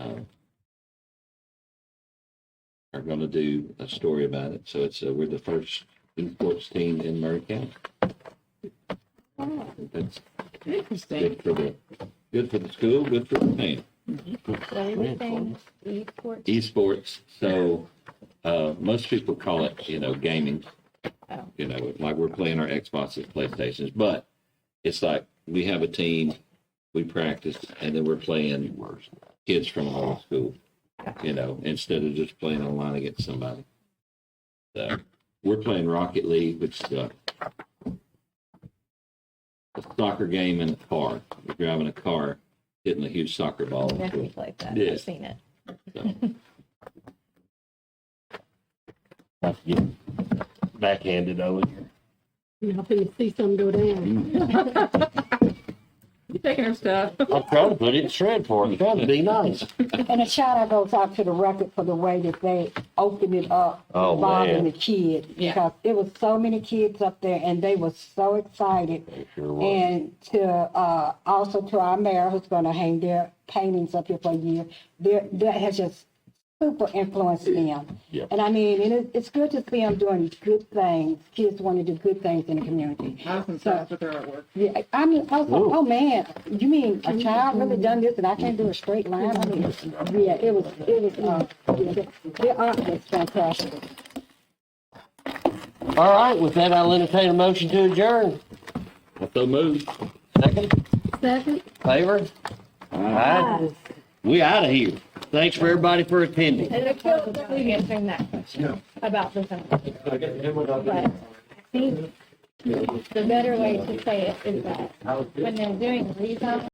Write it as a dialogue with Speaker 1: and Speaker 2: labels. Speaker 1: are going to do a story about it. So it's, uh, we're the first youth sports team in Murray County. That's
Speaker 2: Interesting.
Speaker 1: good for the, good for the school, good for the team.
Speaker 2: So we were saying esports.
Speaker 1: Esports, so, uh, most people call it, you know, gaming.
Speaker 2: Oh.
Speaker 1: You know, like we're playing our Xboxes, Playstations, but it's like, we have a team, we practice, and then we're playing kids from all the school, you know, instead of just playing online against somebody. So, we're playing Rocket League, which is a a soccer game in a car. You're driving a car, hitting a huge soccer ball into a
Speaker 2: Definitely like that.
Speaker 1: Yeah.
Speaker 2: I've seen it.
Speaker 3: Not to get backhanded, Owen.
Speaker 4: Now, if you see some go down.
Speaker 5: You taking her stuff.
Speaker 3: I'm trying to put it in shred for him, trying to be nice.
Speaker 6: And a shout out goes out to the record for the way that they opened it up,
Speaker 3: Oh, man.
Speaker 6: involving the kids.
Speaker 5: Yeah.
Speaker 6: Because it was so many kids up there and they were so excited.
Speaker 3: It sure was.
Speaker 6: And to, uh, also to our mayor who's gonna hang their paintings up here for a year, there, that has just super influenced them.
Speaker 3: Yep.
Speaker 6: And I mean, and it, it's good to see them doing good things. Kids want to do good things in the community.
Speaker 5: I was impressed with her artwork.
Speaker 6: Yeah, I mean, I was like,
Speaker 3: Ooh.
Speaker 6: oh man, you mean a child really done this and I can't do a straight line? I mean, yeah, it was, it was, uh, yeah, the- the art was fantastic.
Speaker 3: All right, with that, I'll entertain a motion to adjourn.
Speaker 1: So moved.
Speaker 3: Second,
Speaker 4: Second,
Speaker 3: favor? Aye. We out of here. Thanks for everybody for attending.
Speaker 2: And I feel like we're answering that question about the zone. But I think the better way to say it is that when they're doing rezone,